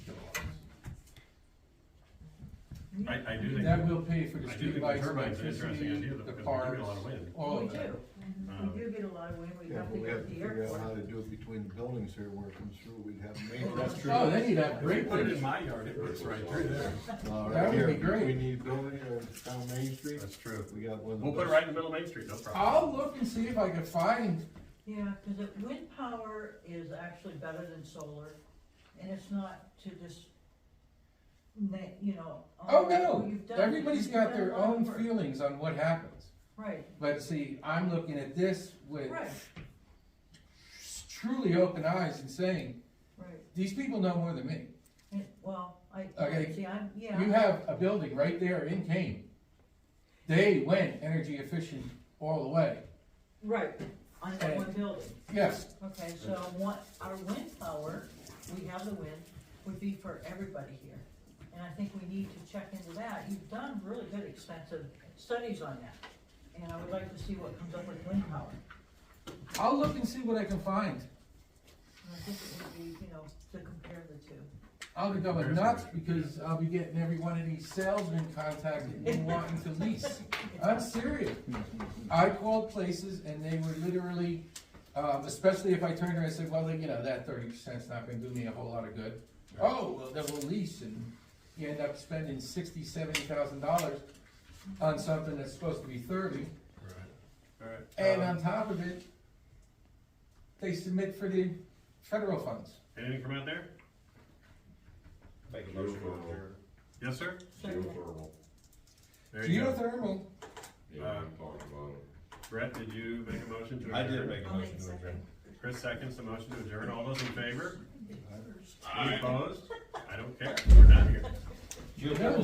I, I do think. That will pay for the I do think the streetlights, turbine's an interesting electricity, idea, though, the because we do get a parks, lot of wind. all We of that. do, um, we do get a lot of wind, we Yeah, have to but we go to have to the figure out how airport. to do it between the buildings here where it comes through, we'd have main. That's true. Oh, then you'd have If you great put it things. in my yard, it works right through there. Uh, That right would here, be great. we need building or down Main Street, That's true. we got one of We'll put it those. right in the middle of Main Street, no problem. I'll look and see if I can find, Yeah, cause it, wind power is actually better than solar, and it's not to just, na you know. oh what no, you've done, everybody's you've got done a their lot of own work. feelings on what happens. Right, But see, I'm looking at this with right, truly open eyes and saying, right, these people know more than me. and, well, I, Okay. see, I'm, yeah. You have a building right there in Kane. They went energy efficient all the way. Right, on that one building. Yes, Okay, so one, our wind power, we have the wind, would be for everybody here. And I think we need to check into that. You've done really good extensive studies on that. And I would like to see what comes up with wind power. I'll look and see what I can find. And I think it would be, you know, to compare the two. I'll be going nuts because I'll be getting every one of these salesmen contacting me wanting to lease. I'm serious. I called places and they were literally, um, especially if I turned around and said, well, you know, that thirty percent's not gonna do me a whole lot of good. Oh, well, then we'll lease and you end up spending sixty, seventy thousand dollars on something that's supposed to be thirty. Alright. And Um, on top of it, they submit for the federal funds. Anything from out there? Make a motion to Geothermal, adjourn. Yes, sir? geothermal, There you go. Geothermal, yeah, we talked about it. Brett, did you make a motion to adjourn? I did make a I'll make motion to second. adjourn. Chris seconds the motion to adjourn. All those in favor? Any opposed? I don't care. We're done here. Geothermal. No,